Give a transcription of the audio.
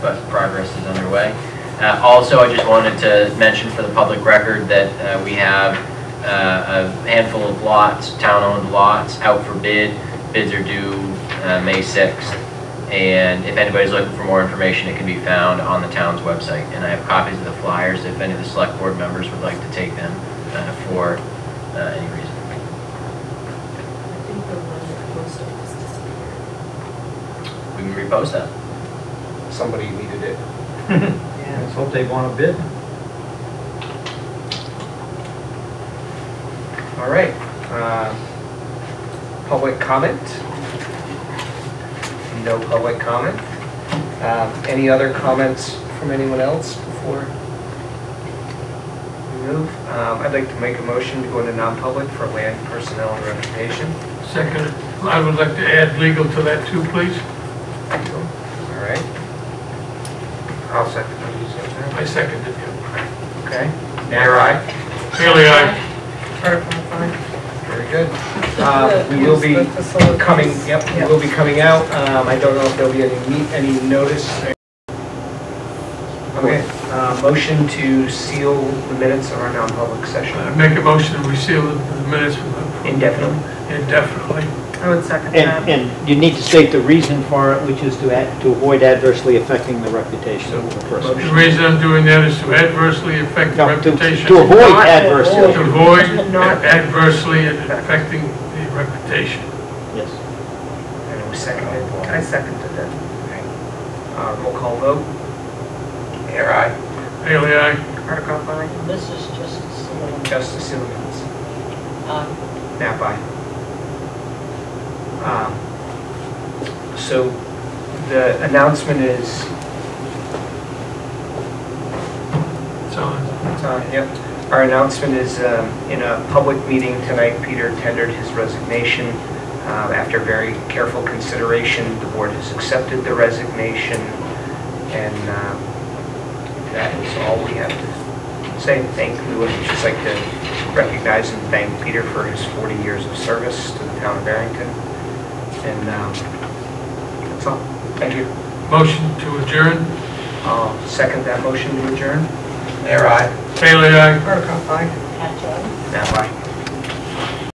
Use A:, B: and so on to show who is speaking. A: but progress is underway. Uh, Also, I just wanted to mention for the public record that uh, we have uh, a handful of lots, town-owned lots, out for bid. Bids are due uh, May 6th, and if anybody's looking for more information, it can be found on the town's website. And I have copies of the flyers if any of the select board members would like to take them uh, for uh, any reason.
B: I think the one that posted was disappeared.
A: We can repost that.
C: somebody needed it.
D: Let's hope they want to bid.
C: All right. uh, Public comment? No public comment? Um, Any other comments from anyone else before we move? Um, I'd like to make a motion to go into non-public for land personnel and reputation.
E: Second, I would like to add legal to that too, please.
C: All right. I'll second what you said.
E: I seconded you.
C: Okay. Mayor, aye?
E: Haley, aye.
B: Article five.
C: Very good. Uh, We will be coming, yep, we will be coming out. Um, I don't know if there'll be any, meet- any notice. Okay, uh, motion to seal the minutes of our non-public session
E: I Uh, Make a motion, we seal the the minutes for the...
C: indefinitely.
E: Indefinitely.
B: I would second
D: And,
B: that.
D: and you need to state the reason for it, which is to, ad- to avoid adversely affecting the reputation of the person.
E: The reason I'm doing that is to adversely affect the
D: No, to-
E: reputation.
D: To avoid
B: Not
D: adversely,
E: To avoid
B: Not-
E: adversely affecting the reputation.
D: yes.
C: And we seconded.
B: I seconded it.
C: Uh, Roll call vote. Mayor, aye.
E: Haley, aye.
B: Article five.
F: This is just a saloon.
C: Just to seal the minutes.
F: Uh,
C: Nap by. Um, So the announcement is,
E: So,
C: it's on, Uh, yep. Our announcement is um, in a public meeting tonight, Peter tendered his resignation. Um, After very careful consideration, the board has accepted the resignation. And um, that is all we have to say. Thank, we would just like to recognize and thank Peter for his 40 years of service to the town of Barrington. And um, that's all. Thank you.
E: motion to adjourn.
C: I'll second that motion to adjourn. Mayor, aye.
E: Haley, aye.
B: Article five.
F: catch up.
C: Nap aye.